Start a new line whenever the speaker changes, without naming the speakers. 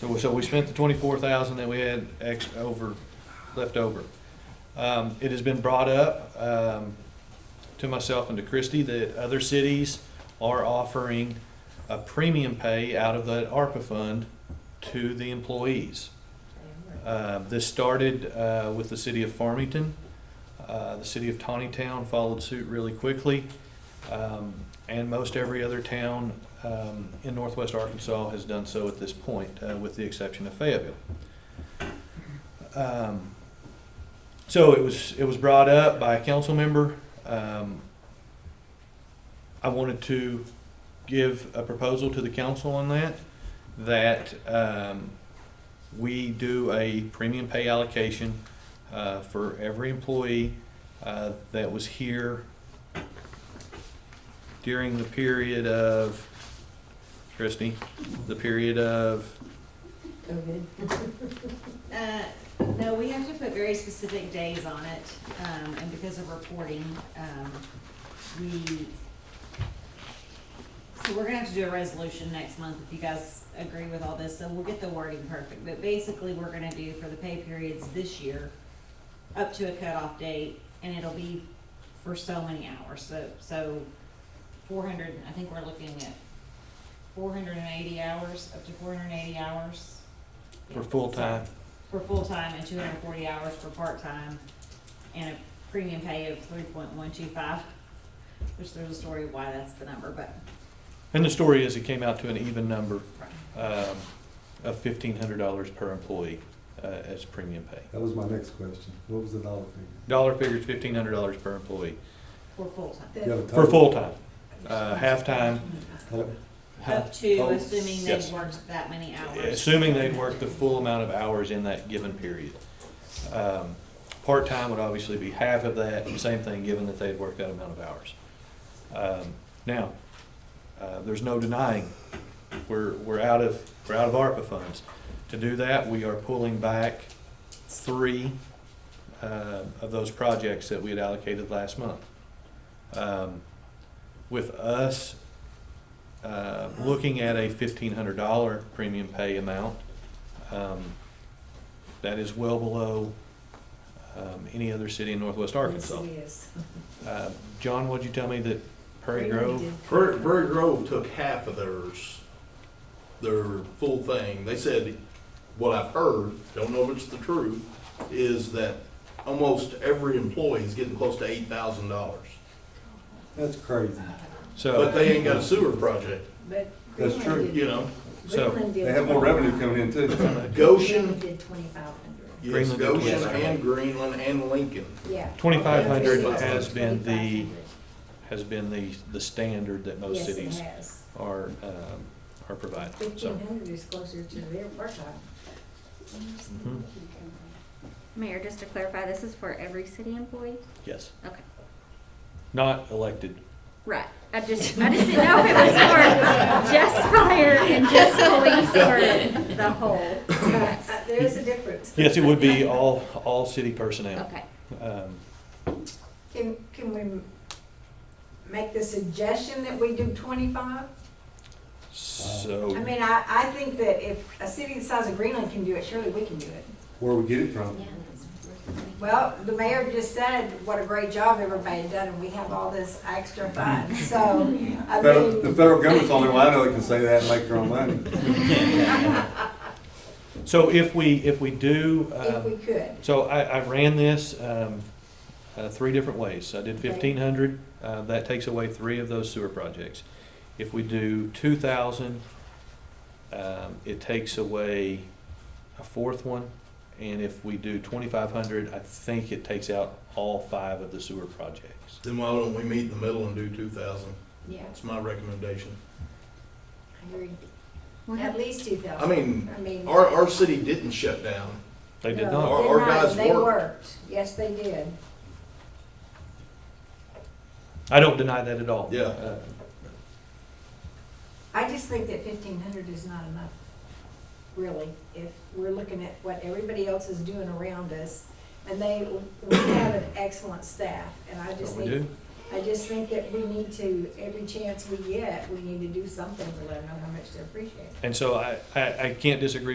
So, we- so we spent the twenty-four thousand that we had ex, over, left over. Um, it has been brought up, um, to myself and to Christie that other cities are offering a premium pay out of that ARPA fund to the employees. Uh, This started uh, with the city of Farmington. Uh, The city of Tawny Town followed suit really quickly. Um, And most every other town um, in northwest Arkansas has done so at this point, uh, with the exception of Fayetteville. Um, So it was, it was brought up by a council member. Um, I wanted to give a proposal to the council on that, that um, we do a premium pay allocation uh, for every employee uh, that was here during the period of, Christie, the period of,
COVID.
Uh, No, we have to put very specific days on it, um, and because of reporting, um, we, so we're gonna have to do a resolution next month if you guys agree with all this, so we'll get the wording perfect. But basically, we're gonna do for the pay periods this year, up to a cutoff date, and it'll be for so many hours, so, so four hundred, I think we're looking at four hundred and eighty hours, up to four hundred and eighty hours.
for full-time.
For full-time and two hundred and forty hours for part-time, and a premium pay of three point one two five, which there's a story of why that's the number, but.
And the story is it came out to an even number um, of fifteen hundred dollars per employee uh, as premium pay.
That was my next question. What was the dollar figure?
Dollar figure is fifteen hundred dollars per employee,
For full-time,
Do you have a
for
total?
full-time, uh, half-time,
Total?
half-
up to assuming
Oh, Yes.
they've worked that many hours.
assuming they work the full amount of hours in that given period. Um, Part-time would obviously be half of that, and same thing, given that they'd worked that amount of hours. Um, Now, uh, there's no denying, we're, we're out of, we're out of ARPA funds. To do that, we are pulling back three uh, of those projects that we had allocated last month. Um, With us uh, looking at a fifteen hundred dollar premium pay amount, um, that is well below, um, any other city in northwest Arkansas.
Yes,
Uh, John, what'd you tell me that Prairie Grove,
Prairie, Prairie Grove took half of theirs, their full thing. They said, what I've heard, don't know if it's the truth, is that almost every employee is getting close to eight thousand dollars.
That's crazy.
But
so,
they ain't got a sewer project,
but.
That's
Greenland
true.
did-
you know?
So,
Greenland did
They have more
25.
revenue coming in too.
Greenland
Goshen,
did twenty-five hundred.
yes,
Greenland and
Goshen
Twist.
and Greenland and Lincoln.
Yeah.
2,500
has
been the-
2,500.
has been the, the standard that most
Yes, it
cities
has.
are, um, are providing, so.
Fifteen hundred is closer to their part-time.
mhm,
Mayor, just to clarify, this is for every city employee?
Yes,
Okay,
not elected,
right. I just, I just didn't know if it was for just fire and just police or the whole. Yes.
Uh, There is a difference.
yes, it would be all, all city personnel.
Okay,
Um,
Can, can we make the suggestion that we do twenty-five? I
So,
mean, I, I think that if a city the size of Greenland can do it, surely we can do it.
Where we get it from?
Well, the mayor just said what a great job everybody done, and we have all this extra funds, so, I
Federal- The
mean,
federal government's the only one I know that can say that and make their own money.
so if we, if we do,
if
um,
we could.
So I, I ran this, um, uh, three different ways. I did
Okay.
fifteen hundred, uh, that takes away three of those sewer projects. If we do two thousand, um, it takes away a fourth one. And if we do twenty-five hundred, I think it takes out all five of the sewer projects.
Then why don't we meet in the middle and do two thousand?
Yeah,
That's my recommendation.
I agree.
Well,
At
that-
least two
I
thousand.
mean,
I mean.
our, our city didn't shut down.
They did
no,
not.
Our-
they're
our
not.
guys
They
worked.
worked, yes, they did.
I don't deny that at all.
Yeah.
Uh,
I just think that fifteen hundred is not enough, really, if we're looking at what everybody else is doing around us. And they, we have an excellent staff, and I
But
just
Oh, we
think
do.
I just think that we need to, every chance we get, we need to do something to let them know how much they appreciate it.
And so I, I, I can't disagree